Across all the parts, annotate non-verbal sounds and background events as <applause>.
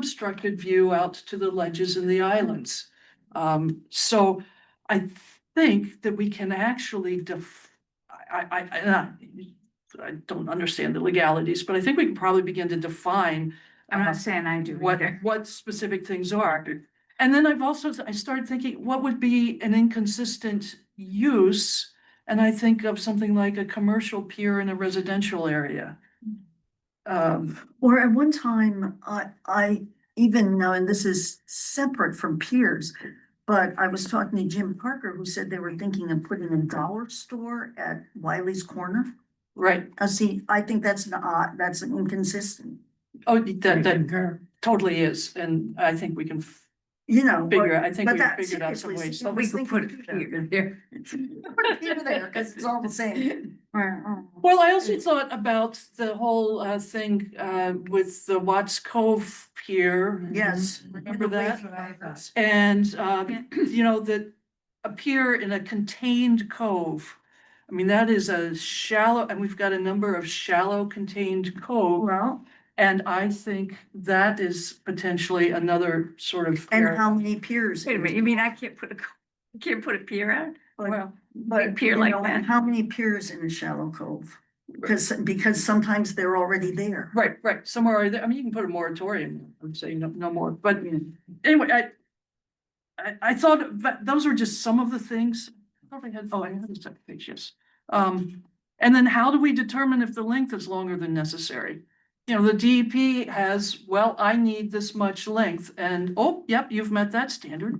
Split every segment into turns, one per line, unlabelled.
unobstructed view out to the ledges and the islands. Um, so I think that we can actually def, I, I, I, and I- I don't understand the legalities, but I think we can probably begin to define
I'm
Um,
Uh,
not saying I do
what,
either. <laughs>
what specific things are. And then I've also, I started thinking, what would be an inconsistent use? And I think of something like a commercial pier in a residential area. Um,
Or at one time, I, I even know, and this is separate from peers, but I was talking to Jim Parker, who said they were thinking of putting a dollar store at Wiley's Corner.
right,
Uh, see, I think that's an odd, that's an inconsistent,
oh, that, that totally is, and I think we can f-
you know. but-
figure, I think
but
we
that-
figured out some
seriously,
ways.
so
We could put it
thinking of
here, there.
that. Put it here there, because it's all the same.
<laughs>
oh.
Well, I also thought about the whole uh thing uh with the Watts Cove pier.
Yes.
Mm-hmm.
Remember
The way-
that? And um, you know, that appear in a contained cove. I mean, that is a shallow, and we've got a number of shallow contained cove.
Well,
And I think that is potentially another sort of.
and
area.
how many peers?
Wait a minute, you mean I can't put a, co- I can't put a pier out?
But-
Well,
But
pier
you
like
know,
that.
How many piers in a shallow cove? Because, because sometimes they're already there.
right, right, somewhere, either- I mean, you can put a moratorium, I'm saying no, no more, but anyway, I. I, I thought that those were just some of the things, I probably had, oh, I had a second page, yes. Um, and then how do we determine if the length is longer than necessary? You know, the DEP has, well, I need this much length and, oh, yep, you've met that standard.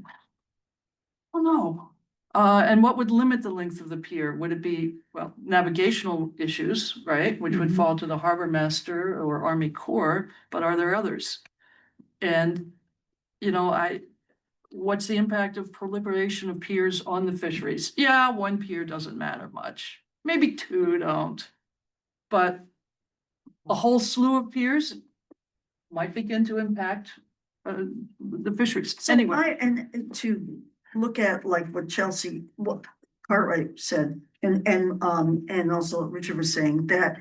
Oh, no. Uh, and what would limit the length of the pier? Would it be, well, navigational issues, right? Which would
Mhm.
fall to the harbor master or Army Corps, but are there others? And, you know, I, what's the impact of proliferation of piers on the fisheries? Yeah, one pier doesn't matter much. Maybe two don't. But a whole slew of piers might begin to impact uh, the fisheries.
So
Anyway.
I, and and to look at like what Chelsea, what Cartwright said, and, and, um, and also what Richard was saying, that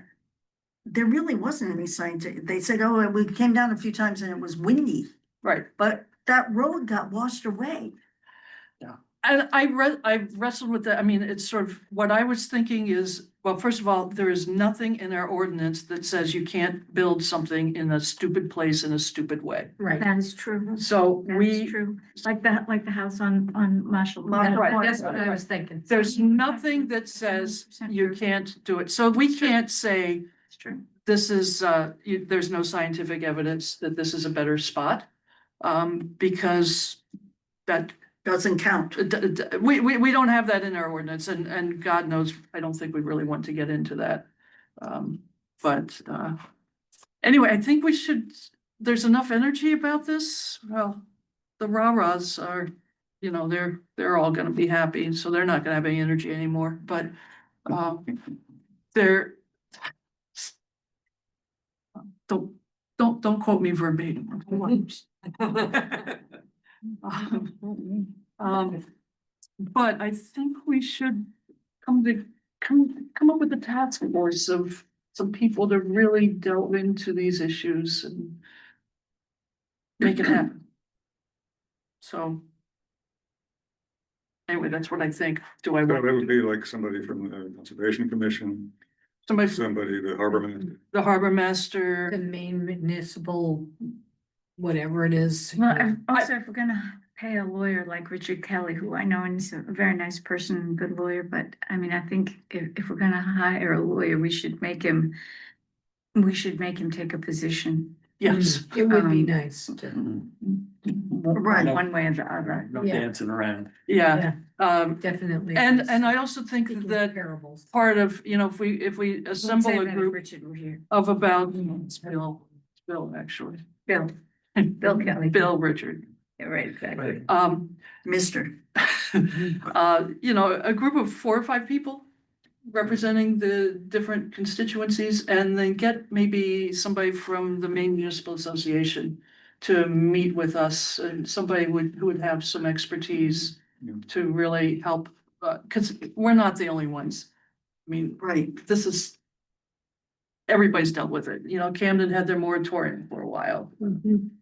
there really wasn't any scientific, they said, oh, and we came down a few times and it was windy,
Right,
but that road got washed away.
and I re- I wrestled with that, I mean, it's sort of, what I was thinking is, well, first of all, there is nothing in our ordinance that says you can't build something in a stupid place in a stupid way.
Right. That is true.
So
That is
we,
true. Like the, like the house on, on Marshall.
Marshall
That-
Point.
That's what I was thinking.
there's nothing that says you can't do it, so we can't say
It's true.
this is, uh, you, there's no scientific evidence that this is a better spot. Um, because that
Doesn't count.
d- d- d- we, we, we don't have that in our ordinance and, and God knows, I don't think we really want to get into that. Um, but, uh, anyway, I think we should, there's enough energy about this. Well, the rah-rahs are, you know, they're, they're all gonna be happy, so they're not gonna have any energy anymore, but, um, they're don't, don't, don't quote me verbatim. Um, but I think we should come to, come, come up with a task force of some people to really delve into these issues and make it happen. So. Anyway, that's what I think. Do I,
That would
want
be like somebody from the Conservation Commission,
somebody, from
somebody, the harbor master.
the harbor master,
main municipal, whatever it is.
Well, I- also, if we're gonna pay a lawyer like Richard Kelly, who I know and is a very nice person, and good lawyer, but I mean, I think if, if we're gonna hire a lawyer, we should make him, we should make him take a position.
<laughs> yes.
It would be
um,
nice to
Right.
One way or the other.
No
Yeah.
dancing around.
Yeah, um,
definitely.
and, and I also think that
Parables.
part of, you know, if we, if we
Wouldn't
assemble
say
a
that if
group
Richard were here.
of about, it's Bill, it's Bill, actually.
Bill, Bill Kelly.
Bill Richard.
Yeah, right, exactly.
Um,
Mister,
uh, you know, a group of four or five people representing the different constituencies and then get maybe somebody from the Maine Municipal Association to meet with us and somebody would, who would have some expertise
Yeah.
to really help, uh, cause we're not the only ones. I mean,
right,
this is. Everybody's dealt with it, you know, Camden had their moratorium for a while,
Mhm.